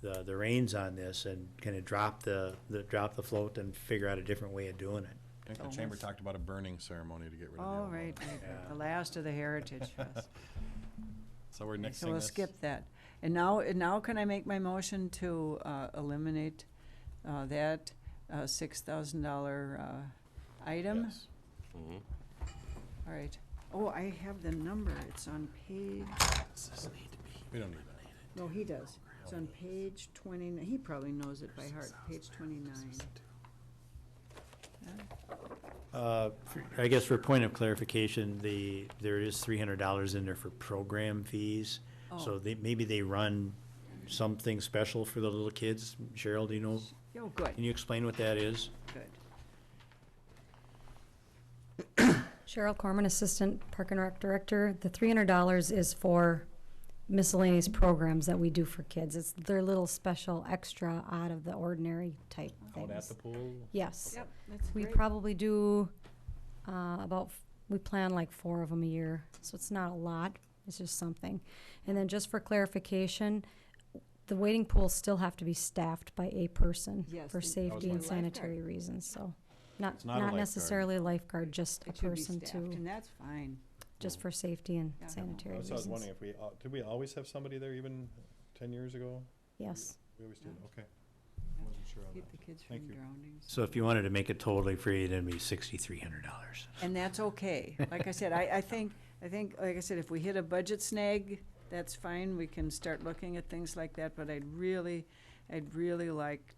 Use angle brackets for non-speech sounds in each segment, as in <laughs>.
the, the reins on this and kind of drop the, the, drop the float and figure out a different way of doing it. I think the chamber talked about a burning ceremony to get rid of the All old one. right, right, right, Yeah. the last of <laughs> the Heritage Fest. So we're nixing Okay, this. So we'll skip that. And now, and now can I make my motion to uh, eliminate uh, that uh, $6,000 uh, item? Yes. All right. Oh, I have the number. It's on page, We don't need that. no, he does. It's on page 29. He probably knows it by heart, page 29. Uh, for- I guess for a point of clarification, the, there is three hundred dollars in there for program fees. So Oh. they, maybe they run something special for the little kids. Cheryl, do you know, Oh, can good, you explain what that is? good. Cheryl Corman, Assistant Park and Rec Director. The three hundred dollars is for miscellaneous programs that we do for kids. It's their little special extra out of the ordinary type Oh, Out at things. the pool? Yes. Yep, that's We great. probably do, uh, about, f- we plan like four of them a year, so it's not a lot, it's just something. And then just for clarification, the waiting pools still have to be staffed by a person Yes, for and- That was safety my- and Lifeguard. sanitary reasons, so. Not, It's not a not lifeguard. necessarily a lifeguard, just a It should be person staffed, to, and that's fine. just for safety and Yeah. sanitary I was I was wondering reasons. if we, al- did we always have somebody there even ten years ago? Yes, We always did, No. okay. I wasn't sure on Keep the that. kids Thank from you. drowning. So if you wanted to make it totally free, it'd be sixty-three hundred dollars. And that's okay. Like I said, I, I think, I think, like I said, if we hit a budget snag, that's fine. We can start looking at things like that, but I'd really, I'd really like,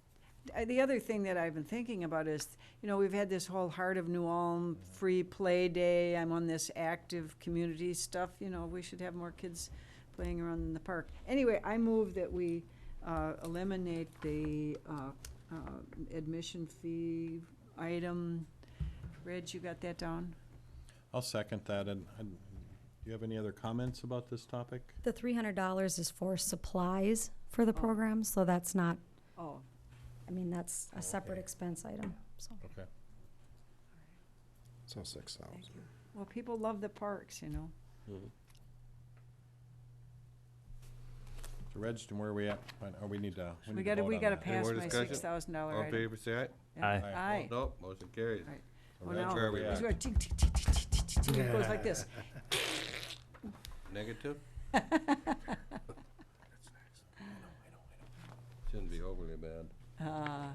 I- the other thing that I've been thinking about is, you know, we've had this whole Heart of New Ulm free play day. I'm on this active community stuff, you know, we should have more kids playing around in the park. Anyway, I move that we uh, eliminate the uh, uh, admission fee item. Reg, you got that down? I'll second that, and, and do you have any other comments about this topic? the three hundred dollars is for supplies for the program, so that's not, Oh, I mean, that's a separate Okay. expense item, so. Okay. So six thousand. well, people love the parks, you know. So Reg, and where are we at? Fine, Oh, we need to. We gotta, we gotta Any pass more my discussion? six thousand dollar All in item. favor, say aye. Yeah. Aye. Aye. Nope, motion carries. Right. Well, Well, now, where we it's at. going tick, tick, tick, tick, tick, tick, tick, it goes like this. Negative? Shouldn't be overly bad. Uh,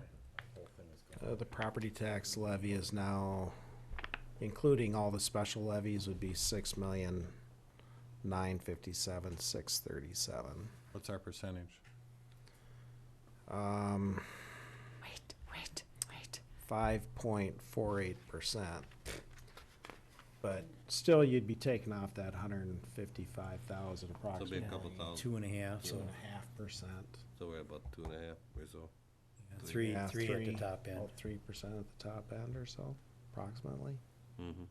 Uh, the property tax levy is now, including all the special levies, would be six million, nine fifty-seven, six thirty-seven. What's our percentage? Um, wait, wait, wait. five point four eight percent. But still, you'd be taking off that hundred and fifty-five thousand This'll approximately. be a couple thousand, Two and a half, Two so and a half percent. so we're about two and a half or so. three, Yeah, three at the top end. about Three percent at the top end or so, approximately. Mm-hmm.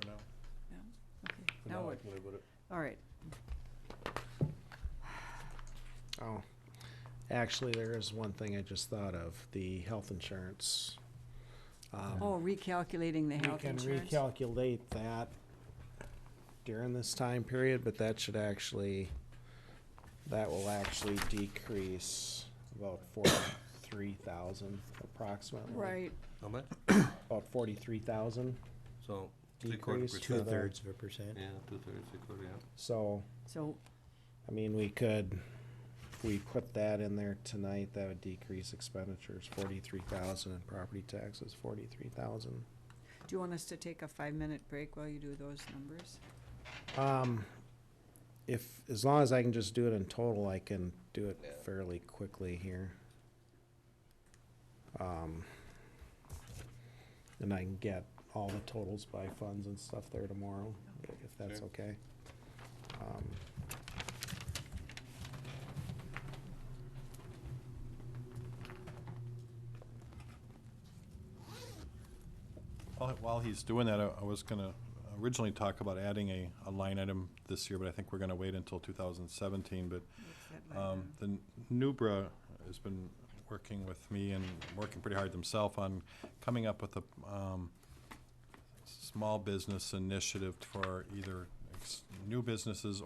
For now? Yeah, okay. Now what? live with it. All right, Oh, actually, there is one thing I just thought of, the health insurance. Um, oh, recalculating the We health can insurance. recalculate that during this time period, but that should actually, that will actually decrease about forty-three thousand approximately. Right, How much? About forty-three thousand, So, three quarter Decrease percent. to the- Two-thirds of a percent. Yeah, two thirds, three quarter, yeah. so, so, I mean, we could, if we put that in there tonight, that would decrease expenditures forty-three thousand and property taxes forty-three thousand. do you want us to take a five-minute break while you do those numbers? Um, if, as long as I can just do it in total, I can do it Yeah. fairly quickly here. Um, and I can get all the totals by funds and stuff there tomorrow, if that's Sure. okay. Um, While, while he's doing that, I, I was gonna originally talk about adding a, a line item this year, but I think we're gonna wait until two thousand seventeen, but What's that line Um, item? The Nubra has been working with me and working pretty hard themselves on coming up with a um, small business initiative for either ex- new businesses